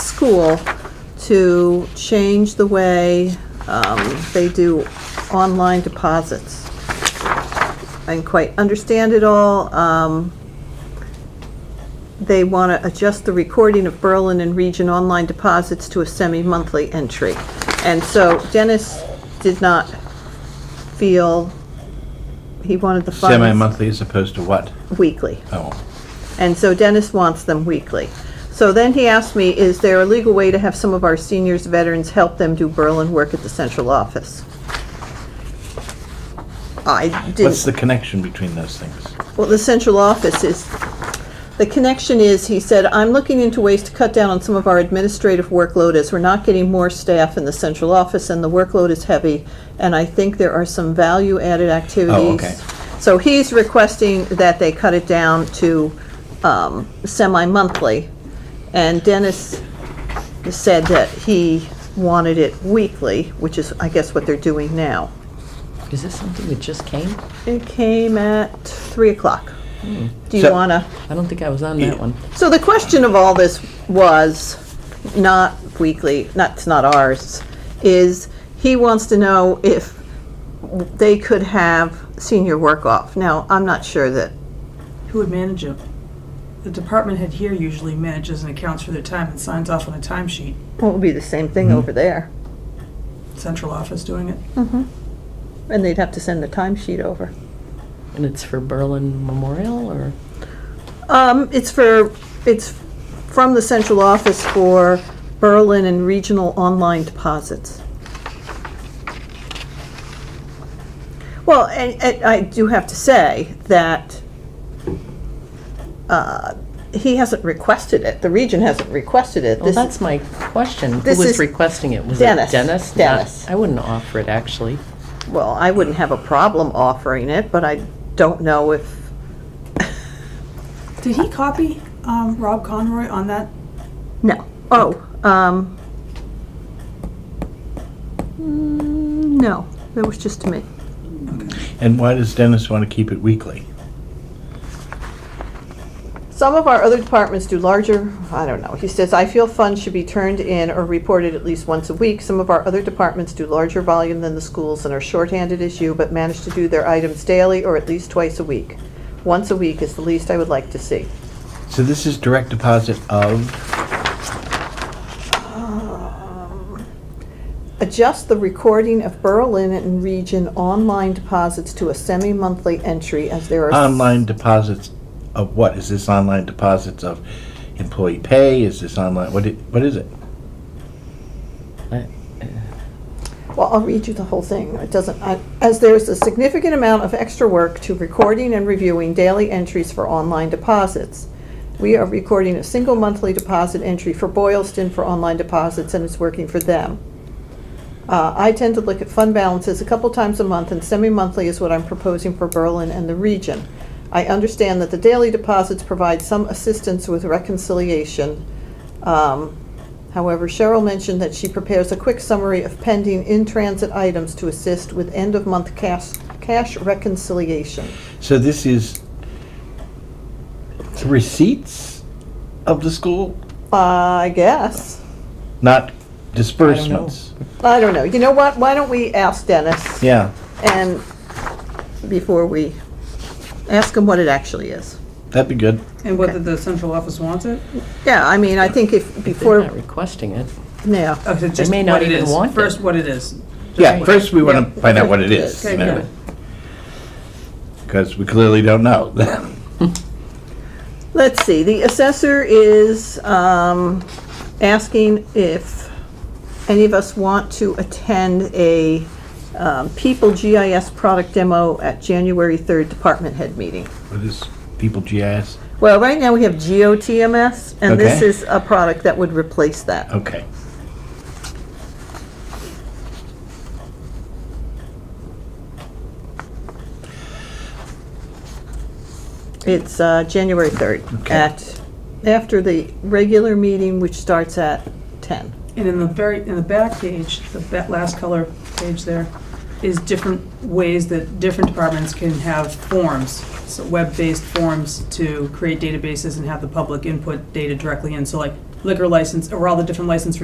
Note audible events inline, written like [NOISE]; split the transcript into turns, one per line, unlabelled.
school to change the way um, they do online deposits. I didn't quite understand it all. Um, They want to adjust the recording of Berlin and region online deposits to a semi-monthly entry. And so Dennis did not feel, he wanted the funds.
Semi-monthly as opposed to what?
Weekly.
Oh,
And so Dennis wants them weekly. So then he asked me, is there a legal way to have some of our seniors, veterans, help them do Berlin work at the central office? I
what's
didn't,
the connection between those things?
well, the central office is, the connection is, he said, I'm looking into ways to cut down on some of our administrative workload as we're not getting more staff in the central office and the workload is heavy. And I think there are some value-added activities.
Oh, okay.
So he's requesting that they cut it down to um, semi-monthly. And Dennis said that he wanted it weekly, which is, I guess, what they're doing now.
Is this something that just came?
It came at 3 o'clock. Do you
Hmm. So-
want to?
I don't think I was on that one.
So the question of all this was, not weekly, not, it's not ours, is he wants to know if they could have senior work off. Now, I'm not sure that,
Who would manage it? The department head here usually manages and accounts for their time and signs off on a timesheet.
well, it would be the same thing over there.
Central office doing it.
And they'd have to send the timesheet over.
And it's for Berlin Memorial or?
Um, it's for, it's from the central office for Berlin and regional online deposits. Well, and, and I do have to say that, uh, he hasn't requested it, the region hasn't requested it.
Well,
This is-
that's my question. Who
this
was
is-
requesting it? Was it
Dennis,
Dennis? Not-
Dennis.
I wouldn't offer it, actually.
Well, I wouldn't have a problem offering it, but I don't know if,
Did he copy um, Rob Conroy on that?
no. Oh, um, mm, no, that was just me.
And why does Dennis want to keep it weekly?
Some of our other departments do larger, I don't know. He says, I feel funds should be turned in or reported at least once a week. Some of our other departments do larger volume than the schools and are shorthanded as you, but manage to do their items daily or at least twice a week. Once a week is the least I would like to see.
So this is direct deposit of,
Adjust the recording of Berlin and region online deposits to a semi-monthly entry as there are.
online deposits of what? Is this online deposits of employee pay? Is this online, what, i- what is it?
I- uh,
Well, I'll read you the whole thing. It doesn't, I- as there's a significant amount of extra work to recording and reviewing daily entries for online deposits. We are recording a single monthly deposit entry for Boylston for online deposits, and it's working for them. Uh, I tend to look at fund balances a couple times a month, and semi-monthly is what I'm proposing for Berlin and the region. I understand that the daily deposits provide some assistance with reconciliation. Um, However, Cheryl mentioned that she prepares a quick summary of pending in-transit items to assist with end-of-month cash, cash reconciliation.
So this is receipts of the school,
I guess.
not disbursements?
I don't know. You know what? Why don't we ask Dennis?
Yeah,
And before we, ask him what it actually is.
that'd be good.
And
whether
the central office wants it?
Yeah, I mean, I think if,
They're
before,
not requesting it.
yeah.
Oh, so just
may not
what it
even
is.
want it.
First, what it is.
Yeah, first we want to
Yeah.
find out what it is.
Okay, yeah.
Because we clearly don't know. [LAUGHS]
Let's see, the assessor is um, asking if any of us want to attend a um, People GIS product demo at January 3rd Department Head Meeting.
What is People GIS?
Well, right now, we have GOTMS, and this
Okay.
is a product that would replace that.
Okay.
It's uh, January 3rd
Okay.
at, after the regular meeting, which starts at 10.
And in the very, in the back page, the ba- last color page there, is different ways that different departments can have forms, so web-based forms to create databases and have the public input data directly in. So like liquor license, or all the different license